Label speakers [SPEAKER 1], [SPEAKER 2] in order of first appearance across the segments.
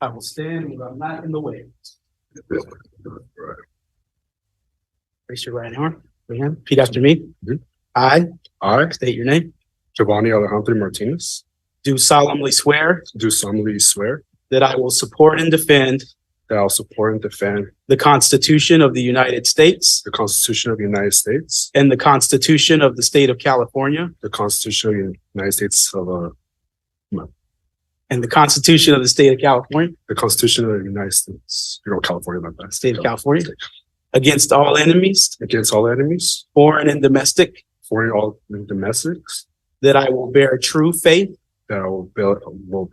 [SPEAKER 1] I will stand where I'm not in the way. Raise your right hand, right hand. repeat after me.
[SPEAKER 2] Mhm.
[SPEAKER 1] I
[SPEAKER 2] I,
[SPEAKER 1] state your name,
[SPEAKER 2] Giovanni Alejandro Martinez,
[SPEAKER 1] do solemnly swear
[SPEAKER 2] do solemnly swear
[SPEAKER 1] that I will support and defend
[SPEAKER 2] that I will support and defend
[SPEAKER 1] the Constitution of the United States
[SPEAKER 2] the Constitution of the United States,
[SPEAKER 1] and the Constitution of the State of California
[SPEAKER 2] the Constitution of the United States of, uh,
[SPEAKER 1] and the Constitution of the State of California,
[SPEAKER 2] the Constitution of the United States, you know, California, my bad.
[SPEAKER 1] State of California, against all enemies,
[SPEAKER 2] Against all enemies,
[SPEAKER 1] foreign and domestic,
[SPEAKER 2] foreign all and domestics,
[SPEAKER 1] that I will bear true faith
[SPEAKER 2] that I will bear, will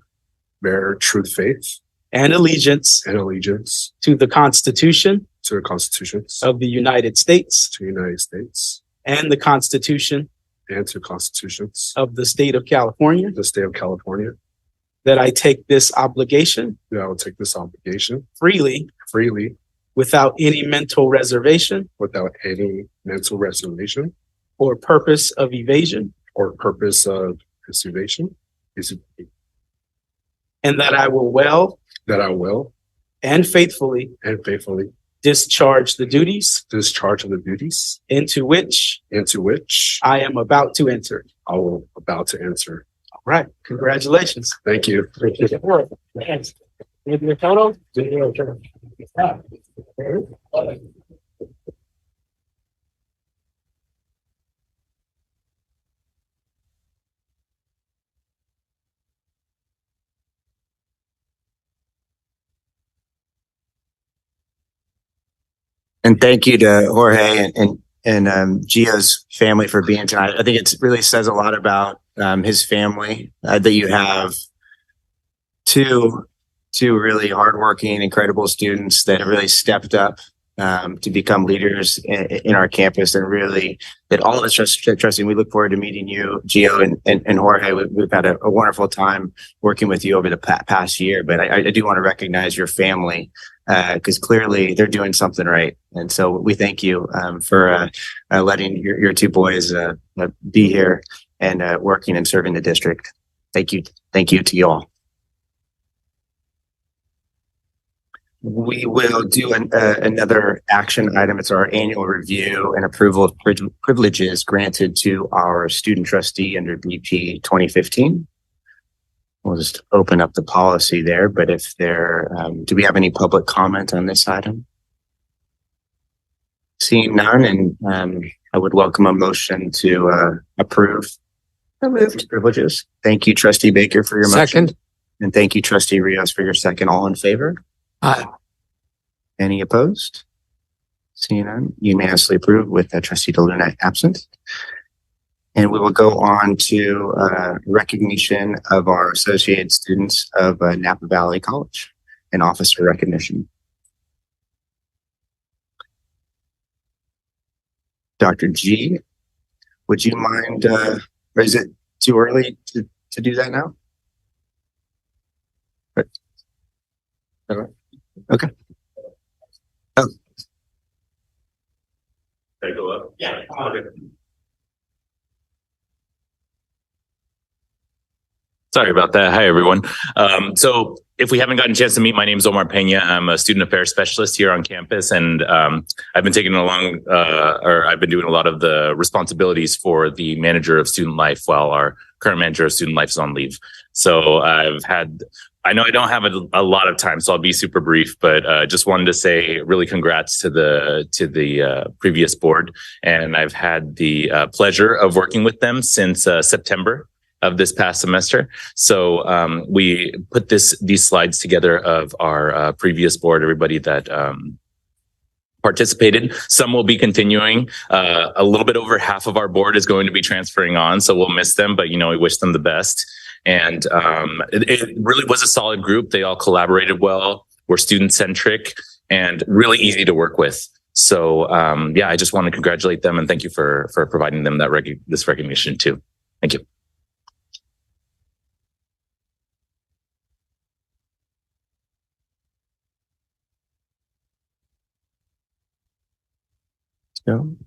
[SPEAKER 2] bear true faith
[SPEAKER 1] and allegiance
[SPEAKER 2] and allegiance
[SPEAKER 1] to the Constitution
[SPEAKER 2] to the Constitutions
[SPEAKER 1] of the United States
[SPEAKER 2] to the United States
[SPEAKER 1] and the Constitution
[SPEAKER 2] and to the Constitutions
[SPEAKER 1] of the State of California,
[SPEAKER 2] of the State of California,
[SPEAKER 1] that I take this obligation
[SPEAKER 2] that I will take this obligation
[SPEAKER 1] freely
[SPEAKER 2] freely
[SPEAKER 1] without any mental reservation
[SPEAKER 2] without any mental reservation
[SPEAKER 1] or purpose of evasion,
[SPEAKER 2] or purpose of preservation is
[SPEAKER 1] and that I will well
[SPEAKER 2] that I will
[SPEAKER 1] and faithfully
[SPEAKER 2] and faithfully
[SPEAKER 1] discharge the duties
[SPEAKER 2] discharge of the duties
[SPEAKER 1] into which
[SPEAKER 2] into which
[SPEAKER 1] I am about to enter.
[SPEAKER 2] I will about to answer.
[SPEAKER 1] All right, congratulations.
[SPEAKER 2] Thank you.
[SPEAKER 3] And thank you to Jorge and- and, and um, Gio's family for being tonight. I think it really says a lot about um, his family uh, that you have two, two really hardworking, incredible students that have really stepped up um, to become leaders in, in our campus and really that all of us trust, trusting. We look forward to meeting you, Gio and, and, and Jorge. We, we've had a, a wonderful time working with you over the pa- past year, but I, I do want to recognize your family because uh, clearly they're doing something right. And so we thank you um, for uh, uh, letting your, your two boys uh, uh, be here and uh, working and serving the district. Thank you. Thank you to you all. We will do an, uh, another action item. It's our annual review and approval of priv- privileges granted to our student trustee under BP 2015. We'll just open up the policy there, but if there, um, do we have any public comment on this item? Seeing none, and, um, I would welcome a motion to, uh, approve. moved. Privileges. Thank you, trustee Baker for your motion. And thank you, trustee Rios for your second. All in favor?
[SPEAKER 1] Aye.
[SPEAKER 3] Any opposed? Seeing none, unanimously approved with uh, trustee DeLuna absent. And we will go on to uh, recognition of our associated students of uh, Napa Valley College and officer recognition. Dr. G, would you mind, uh, or is it too early to, to do that now? But- all right. Okay. Oh.
[SPEAKER 2] Can I go up? Yeah.
[SPEAKER 4] Sorry about that. Hi, everyone. Um, so if we haven't gotten a chance to meet, my name is Omar Pena. I'm a student affairs specialist here on campus, and um, I've been taking along, uh, or I've been doing a lot of the responsibilities for the manager of student life while our current manager of student life is on leave. So I've had, I know I don't have a, a lot of time, so I'll be super brief, but uh, just wanted to say really congrats to the to the uh, previous board, and I've had the uh, pleasure of working with them since uh, September of this past semester. So um, we put this these slides together of our uh, previous board, everybody that um, participated. Some will be continuing. Uh, a little bit over half of our board is going to be transferring on, so we'll miss them, but you know we wish them the best. And um, it, it really was a solid group. They all collaborated well. Were student centric and really easy to work with. So um, yeah, I just want to congratulate them and thank you for for providing them that rec- this recognition too.
[SPEAKER 3] So